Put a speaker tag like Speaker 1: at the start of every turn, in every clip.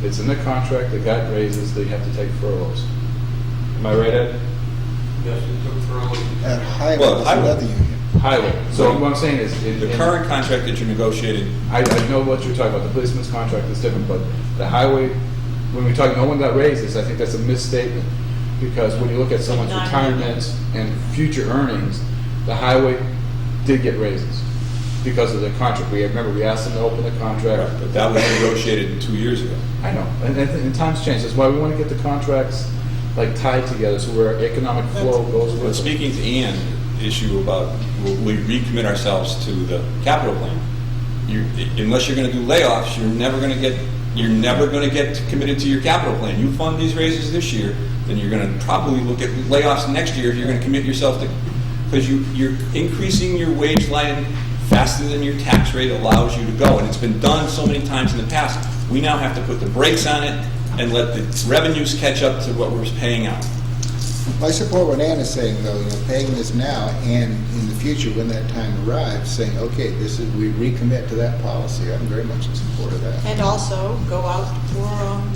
Speaker 1: It's in the contract, they got raises, they have to take furloughs. Am I right, Ed?
Speaker 2: Yes, it took early.
Speaker 3: At Highland,
Speaker 4: Well,
Speaker 3: that's
Speaker 4: Highland-
Speaker 3: another union.
Speaker 1: Highway. So what I'm saying is, in,
Speaker 4: The
Speaker 1: in-
Speaker 4: current contract that you negotiated,
Speaker 1: I, I know what you're talking about, the policeman's contract is different, but the highway, when we talk, no one got raises, I think that's a misstatement. Because when you look at someone's
Speaker 5: Not really.
Speaker 1: retirements and future earnings, the highway did get raises because of the contract. We, remember, we asked them to open the contract.
Speaker 4: but that was negotiated two years ago.
Speaker 1: I know, and, and, and times change. That's why we want to get the contracts like tied together, so where economic flow goes with it.
Speaker 4: But speaking to Ian, the issue about will we recommit ourselves to the capital plan? You, unless you're going to do layoffs, you're never going to get you're never going to get committed to your capital plan. You fund these raises this year, then you're going to probably look at layoffs next year if you're going to commit yourself to because you you're increasing your wage line faster than your tax rate allows you to go, and it's been done so many times in the past. We now have to put the brakes on it and let the revenues catch up to what we're paying out.
Speaker 3: I support what Ann is saying, though, you know, paying this now and in the future, when that time arrives, saying, okay, this is, we recommit to that policy. I'm very much in support of that.
Speaker 5: And also go out for, um,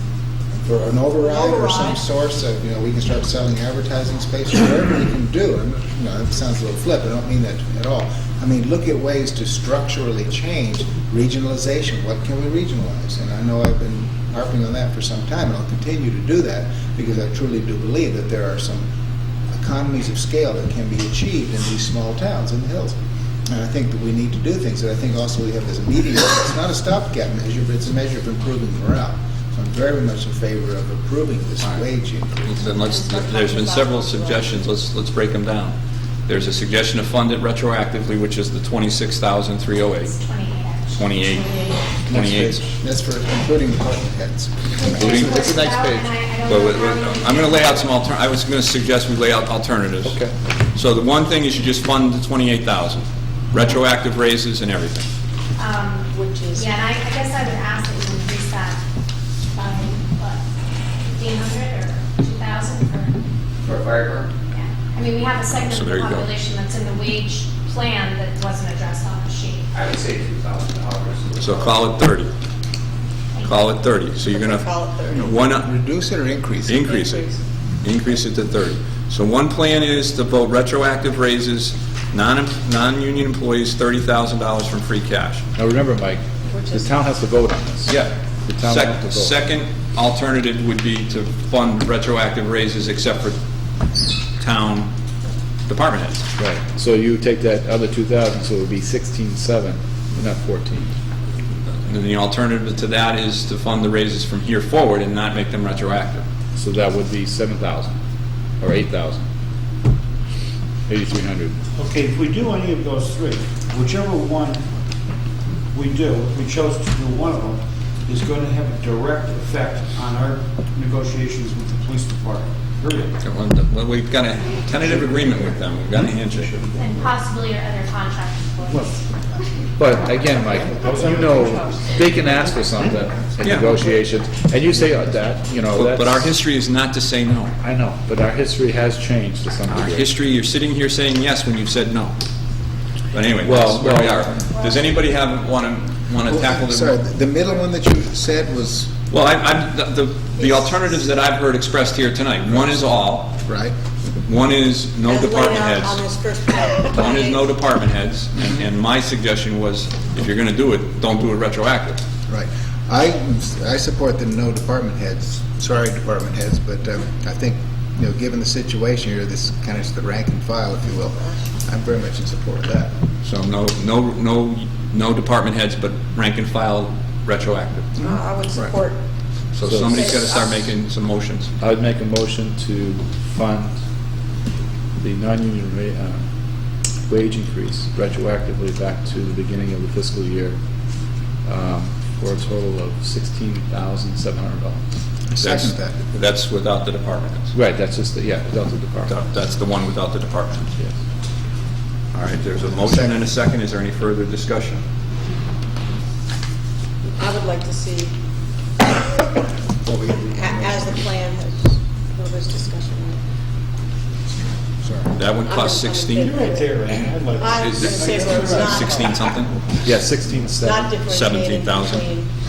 Speaker 3: For an override or some
Speaker 5: Override.
Speaker 3: source of, you know, we can start selling advertising space, or whatever we can do. I'm not- You know, it sounds a little flip, I don't mean that at all. I mean, look at ways to structurally change regionalization. What can we regionalize? And I know I've been harping on that for some time, and I'll continue to do that because I truly do believe that there are some economies of scale that can be achieved in these small towns in the hills. And I think that we need to do things, and I think also we have this immediate, it's not a stopgap measure, but it's a measure of improving morale. So I'm very much in favor of approving this wage increase.
Speaker 4: Then let's, there's been several suggestions, let's, let's break them down. There's a suggestion to fund it retroactively, which is the 26,308, 28,
Speaker 3: Next
Speaker 4: 28,
Speaker 3: page. That's for including department heads.
Speaker 4: including,
Speaker 1: What's the next page?
Speaker 4: so it- I'm going to lay out some alter, I was going to suggest we lay out alternatives.
Speaker 1: Okay.
Speaker 4: So the one thing is you just fund the 28,000, retroactive raises and everything.
Speaker 5: which is.
Speaker 6: um, Yeah, and I, I guess I would ask that you increase that by, what, fifteen hundred or two thousand for,
Speaker 7: For a fire department?
Speaker 6: yeah. I mean, we have a segment
Speaker 4: So
Speaker 6: of
Speaker 4: there
Speaker 6: the
Speaker 4: you go.
Speaker 6: population that's in the wage plan that wasn't addressed on the sheet.
Speaker 7: I would say two thousand dollars.
Speaker 4: So call it 30, call it 30. So you're going to.
Speaker 5: Call it 30.
Speaker 4: One,
Speaker 3: Reduce it or increase it?
Speaker 4: Increase it. Increase it to 30. So one plan is to vote retroactive raises, non- non-union employees $30,000 from free cash.
Speaker 1: Now, remember, Mike, the town has to vote on this.
Speaker 4: Yeah.
Speaker 1: The town
Speaker 4: Sec-
Speaker 1: will have to vote.
Speaker 4: Second alternative would be to fund retroactive raises except for town department heads.
Speaker 1: Right. So you take that other two thousand, so it would be sixteen-seven, not fourteen.
Speaker 4: And then the alternative to that is to fund the raises from here forward and not make them retroactive.
Speaker 1: So that would be seven thousand, or eight thousand. Eighty-three hundred.
Speaker 8: Okay, if we do any of those three, whichever one we do, if we chose to do one of them, is going to have a direct effect on our negotiations with the police department, period.
Speaker 4: Well, We've got a tentative agreement with them. We've got a handshake.
Speaker 6: And possibly your other contract employees.
Speaker 1: But again, Mike, you know, they can ask for something in
Speaker 4: Yeah.
Speaker 1: negotiations, and you say uh, that, you know,
Speaker 4: But
Speaker 1: that's.
Speaker 4: but our history is not to say no.
Speaker 1: I know, but our history has changed to some
Speaker 4: Our
Speaker 1: degree.
Speaker 4: history, you're sitting here saying yes when you've said no. But anyway,
Speaker 1: Well,
Speaker 4: that's where we
Speaker 1: well-
Speaker 4: are. Does anybody have, want to, want to tackle
Speaker 3: Sorry,
Speaker 4: the...
Speaker 3: the middle one that you said was,
Speaker 4: Well, I- I'm, the, the- the alternatives that I've heard expressed here tonight, one is all,
Speaker 3: right?
Speaker 4: one is no
Speaker 5: As laid
Speaker 4: department
Speaker 5: out On
Speaker 4: heads.
Speaker 5: this first Uh, page.
Speaker 4: One is no department heads, and- and my suggestion was, if you're going to do it, don't do it retroactive.
Speaker 3: Right. I, I support the no department heads, sorry, department heads, but um, I think, you know, given the situation here, this is kind of the rank and file, if you will, I'm very much in support of that.
Speaker 4: So no, no, no, no department heads, but rank and file retroactive.
Speaker 5: Uh, I would support,
Speaker 4: So
Speaker 1: So-
Speaker 4: somebody's got to start making some motions.
Speaker 1: I would make a motion to fund the non-union ra- uh, wage increase retroactively back to the beginning of the fiscal year um, for a total of $16,700.
Speaker 3: Second
Speaker 4: That's-
Speaker 3: that.
Speaker 4: That's without the department heads.
Speaker 1: Right, that's just, the- yeah, without the department.
Speaker 4: That- That's the one without the department.
Speaker 1: Yes.
Speaker 4: All right, there's a motion and a second. Is there any further discussion?
Speaker 5: I would like to see, a- as the plan has, for this discussion.
Speaker 3: Sorry.
Speaker 4: That would cost
Speaker 5: I'm in- I'm
Speaker 4: 16,
Speaker 5: in favor.
Speaker 8: Right there, Ann, I'd like to
Speaker 5: I
Speaker 4: Is
Speaker 5: would
Speaker 4: it
Speaker 5: say, well, it's not.
Speaker 4: 16 something?
Speaker 1: Yeah, 16,700.
Speaker 5: Not differentiating
Speaker 4: 17,000.
Speaker 5: between